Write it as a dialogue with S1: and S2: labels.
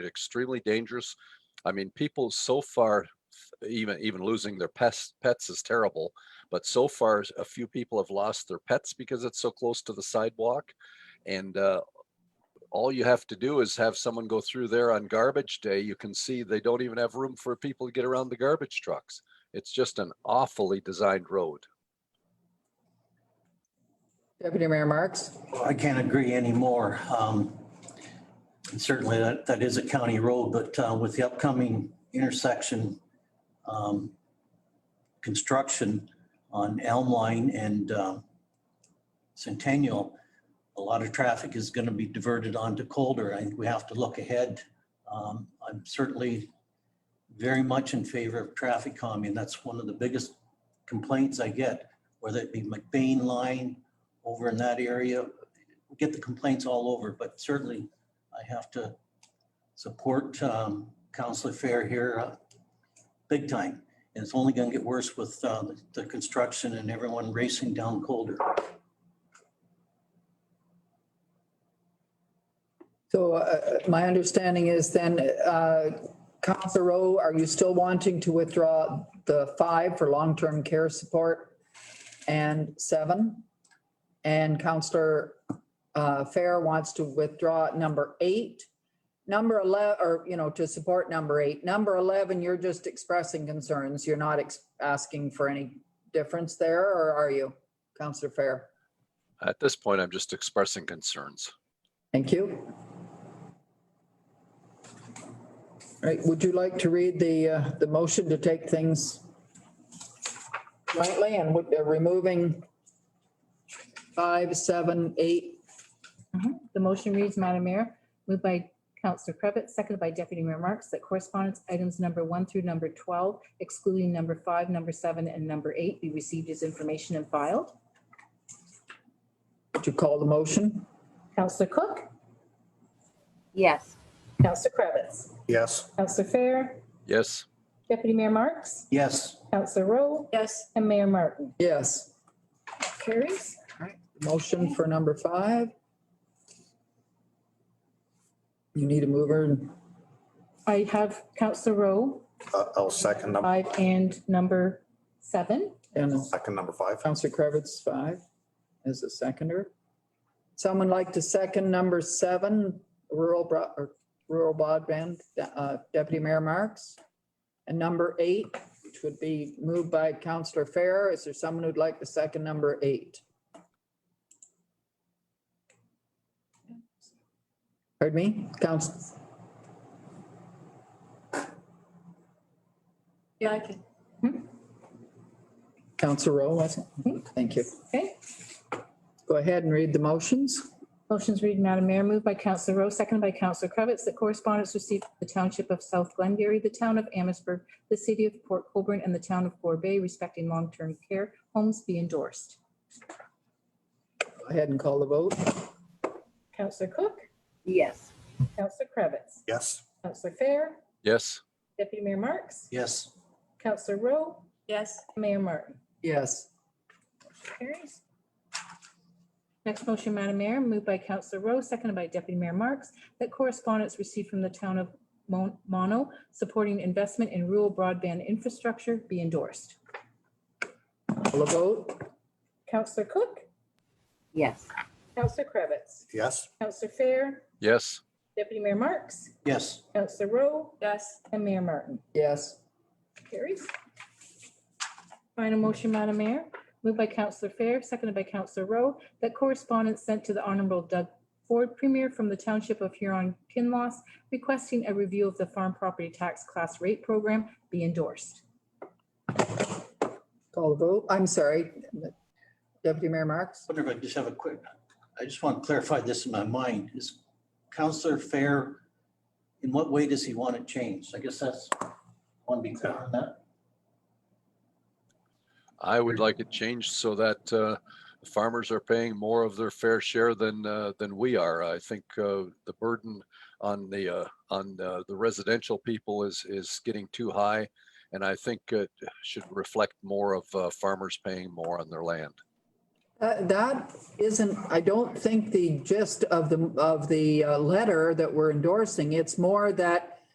S1: extremely dangerous. I mean, people so far, even, even losing their pets, pets is terrible. But so far, a few people have lost their pets because it's so close to the sidewalk. And, uh, all you have to do is have someone go through there on garbage day. You can see they don't even have room for people to get around the garbage trucks. It's just an awfully designed road.
S2: Deputy Mayor Marks?
S3: Well, I can't agree anymore. Um, and Certainly, that, that is a county road, but uh, with the upcoming intersection um, construction on Elm Line and um, Centennial, a lot of traffic is going to be diverted onto Colder. I think we have to look ahead. Um, I'm certainly very much in favor of traffic calming. That's one of the biggest complaints I get, whether it be McBain Line, over in that area. We get the complaints all over, but certainly I have to support um, Counselor Fair here uh, big time. And it's only going to get worse with uh, the construction and everyone racing down colder.
S2: So uh, my understanding is then, uh, Counselor Rowe, are you still wanting to withdraw the five for long-term care support and seven? And Counselor uh, Fair wants to withdraw number eight. Number 11, or, you know, to support number eight. Number 11, you're just expressing concerns. You're not ex- asking for any difference there, or are you, Counselor Fair?
S1: At this point, I'm just expressing concerns.
S2: Thank you. All right, would you like to read the, uh, the motion to take things lightly and with, uh, removing five, seven, eight?
S4: The motion reads, Madam Mayor, moved by Councillor Cravitt, seconded by Deputy Mayor Marks, that correspondence items number one through number 12, excluding number five, number seven, and number eight, be received as information and filed.
S2: Would you call the motion?
S4: Councillor Cook,
S5: Yes,
S4: Councillor Cravitz,
S6: Yes.
S4: Councillor Fair,
S1: Yes,
S4: Deputy Mayor Marks,
S3: Yes,
S4: Councillor Rowe,
S2: Yes.
S4: and Mayor Martin.
S2: Yes,
S4: Carries.
S2: motion for number five. You need a mover and
S4: I have Councillor Rowe,
S6: Uh, I'll second number,
S4: five and number seven.
S2: and a
S6: second number five.
S2: Counselor Cravitz, five, as a seconder. Someone like to second number seven, rural, bro- or rural broadband, uh, Deputy Mayor Marks? And number eight, which would be moved by Counselor Fair, is there someone who'd like to second number eight? Pardon me, Counsel?
S4: Yeah, I can.
S2: Counselor Rowe, was it? Thank you.
S4: Okay.
S2: Go ahead and read the motions.
S4: Motion's read, Madam Mayor, moved by Councillor Rowe, seconded by Councillor Cravitz, that correspondence received from the Township of South Glengarry, the Town of Amherstburg, the City of Port Colborne, and the Town of Gore Bay respecting long-term care homes be endorsed.
S2: Go ahead and call the vote.
S4: Councillor Cook,
S5: yes,
S4: Councillor Cravitz,
S6: Yes.
S4: Councillor Fair,
S1: yes,
S4: Deputy Mayor Marks,
S3: yes,
S4: Councillor Rowe. Yes. Mayor Martin.
S2: Yes.
S4: Carries. Next motion, Madam Mayor, moved by Councillor Rowe, seconded by Deputy Mayor Marks, that correspondence received from the town of Mon- Mono supporting investment in rural broadband infrastructure be endorsed.
S2: Call the vote.
S4: Councillor Cook,
S5: yes,
S4: Councillor Cravitz,
S6: Yes.
S4: Councillor Fair,
S1: yes,
S4: Deputy Mayor Marks,
S3: yes,
S4: Councillor Rowe. Yes. And Mayor Martin.
S2: Yes.
S4: Carries. Final motion, Madam Mayor, moved by Councillor Fair, seconded by Councillor Rowe, that correspondence sent to the Honorable Doug Ford Premier from the Township of Huron Kinloss requesting a review of the farm property tax class rate program be endorsed.
S2: Call the vote. I'm sorry. Deputy Mayor Marks?
S3: wonder if I just have a quick, I just want to clarify this in my mind. Is Counselor Fair, in what way does he want it changed? I guess that's, I want to be clear on that.
S1: I would like it changed so that uh, farmers are paying more of their fair share than, uh, than we are. I think uh, the burden on the, uh, on uh, the residential people is, is getting too high. And I think it should reflect more of uh, farmers paying more on their land.
S2: That, that isn't, I don't think the gist of the, of the uh, letter that we're endorsing, it's more that